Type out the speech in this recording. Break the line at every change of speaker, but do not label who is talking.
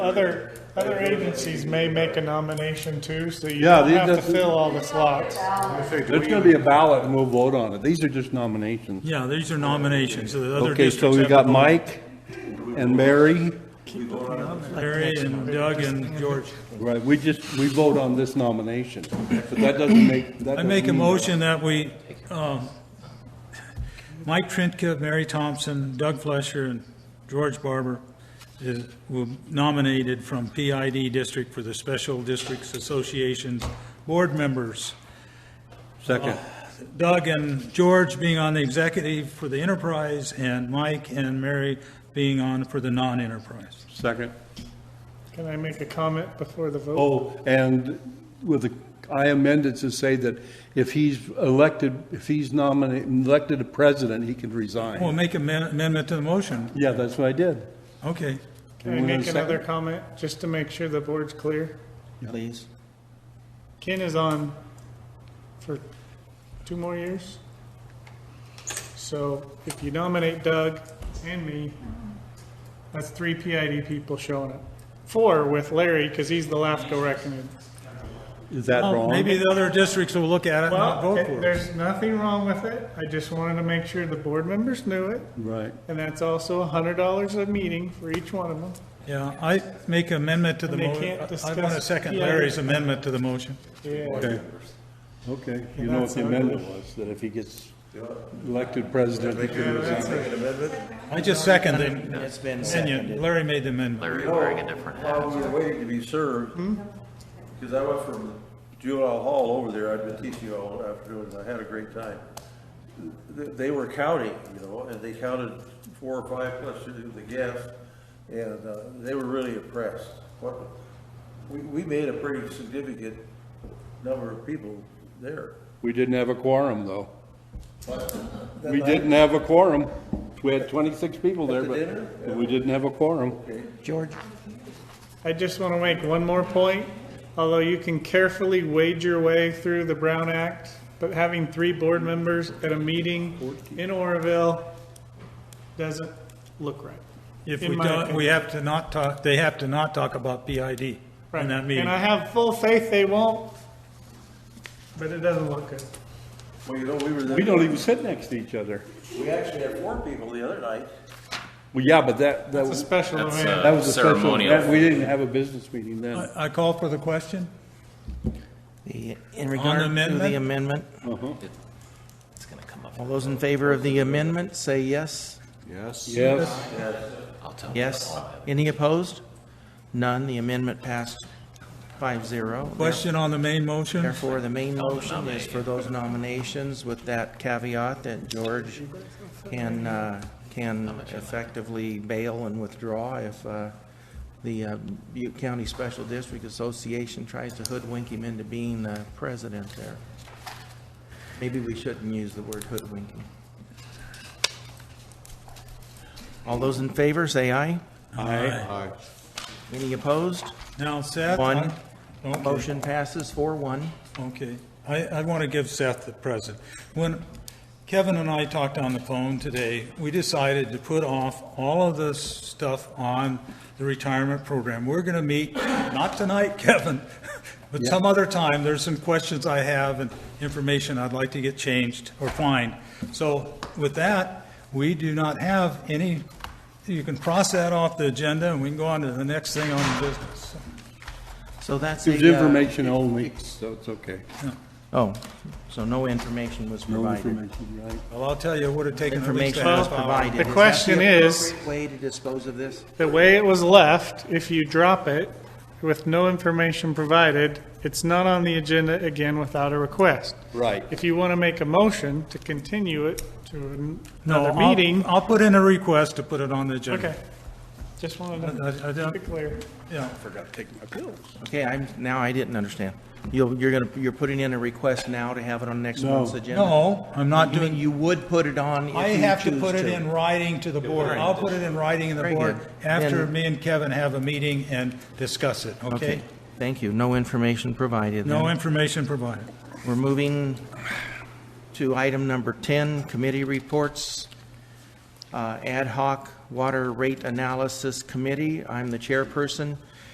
Other, other agencies may make a nomination too, so you
Yeah,
don't
these-
have to
that's-
fill all the slots.
There's gonna be a ballot and we'll vote on it. These are just nominations.
Yeah, these are nominations, so the other
Okay, so
districts
we
have
got
to vote.
Mike and Mary.
Larry and Doug and George.
Right, we just, we vote on this nomination, but that doesn't make, that
I
doesn't
make a
mean-
motion that we, um, Mike Trinka, Mary Thompson, Doug Flesher, and George Barber is- were nominated from PID District for the Special Districts Association's board members.
Second,
Doug and George being on the executive for the enterprise, and Mike and Mary being on for the non-enterprise.
second.
Can I make a comment before the vote?
Oh, and with the, I amended to say that if he's elected, if he's nominated, elected a president, he can
Well,
resign.
make an amendment to the motion.
Yeah, that's what I did.
Okay.
Can I
Anyone
make
have a
another
second?
comment, just to make sure the board's clear?
Please.
Ken is on for two more years. So if you nominate Doug and me, that's three PID people showing up. Four with Larry, because he's the LAFCO recommend.
Is that
Well,
wrong?
Oh, Maybe the other districts will look at it and not
Well,
vote for it.
there's nothing wrong with it. I just wanted to make sure the board members knew it.
Right,
And that's also a hundred dollars a meeting for each one of them.
Yeah, I make amendment to the
And they
motion.
can't
I want to
discuss
second
PID.
Larry's amendment to the motion.
Yeah.
okay. Okay, you know what
that's
the amendment was, that if he gets elected president, he can resign.
I just seconded it.
It's been
And
seconded.
Larry made the amendment.
Larry wearing a different hat.
While we were Oh, waiting to be served,
Hmm?
because I went from juvenile hall over there, I'd been teaching all afternoon, and I had a great time. They, they were counting, you know, and they counted four or five plus the gas, and, uh, they were really impressed. What, we, we made a pretty significant number of people there.
We didn't have a quorum, though. We didn't have a quorum. We had 26 people there,
the dinner?
but but we didn't have a quorum.
George,
I just want to make one more point. Although you can carefully wade your way through the Brown Act, but having three board members at a meeting in Oroville doesn't look right.
If
In
we
my
don't, we
opinion.
have to not talk, they have to not talk about PID in
Right.
that meeting.
And I have full faith they won't, but it doesn't look good.
Well, you know, we were there,
We don't even sit next to each other.
we actually had four people the other night.
Well, yeah, but that, that
It's a
was,
special
That's,
uh,
event.
that was a special,
Ceremonial.
that- we didn't have a business meeting then.
I I call for the question?
the, in regard to
amendment?
the amendment,
It's gonna come up.
all those in favor of the amendment, say yes.
Yes,
I'll tell.
Yes. Any opposed? None. The amendment passed five zero.
Question on the main motion?
Therefore, the main motion is for those nominations with that caveat that George can, uh, can effectively bail and withdraw if uh, the uh, Butte County Special District Association tries to hoodwink him into being the president there. Maybe we shouldn't use the word hoodwinking. All those in favor, say aye.
Aye.
Any opposed?
Now Seth?
One.
I- okay.
Motion passes four one.
Okay, I, I want to give Seth the present. When Kevin and I talked on the phone today, we decided to put off all of this stuff on the retirement program. We're going to meet, not tonight, Kevin, but some other time. There's some questions I have and information I'd like to get changed or find. So with that, we do not have any, you can cross that off the agenda and we can go on to the next thing on the business.
So that's
it was
a, uh,
information only, so it's okay.
Oh, so no information was
No
provided.
information, right?
Well, I'll tell you, it would have taken at least a
Information
half
was
hour.
provided.
The
that
question
the
is-
appropriate Way to dispose of this?
The way it was left, if you drop it with no information provided, it's not on the agenda again without a request.
Right.
If you want to make a motion to continue it to
No,
another
I'll-
meeting,
I'll put in a request to put it on the
okay.
agenda.
Just wanted
I-
to
I- I
keep
don't,
it clear.
yeah.
Okay, I'm, now I didn't understand. You'll, you're gonna, you're putting in a request now to have it on next
No.
month's agenda?
No, I'm not
You mean
doing,
you would put it on if you choose
I have to put it in writing to the board. I'll put it in writing to the
Very
board
good.
after
Then-
me and Kevin have a meeting and discuss it, okay?
Okay, thank you. No information provided then.
No information provided.
We're moving to item number 10, committee reports. Uh, Ad hoc Water Rate Analysis Committee. I'm the chairperson.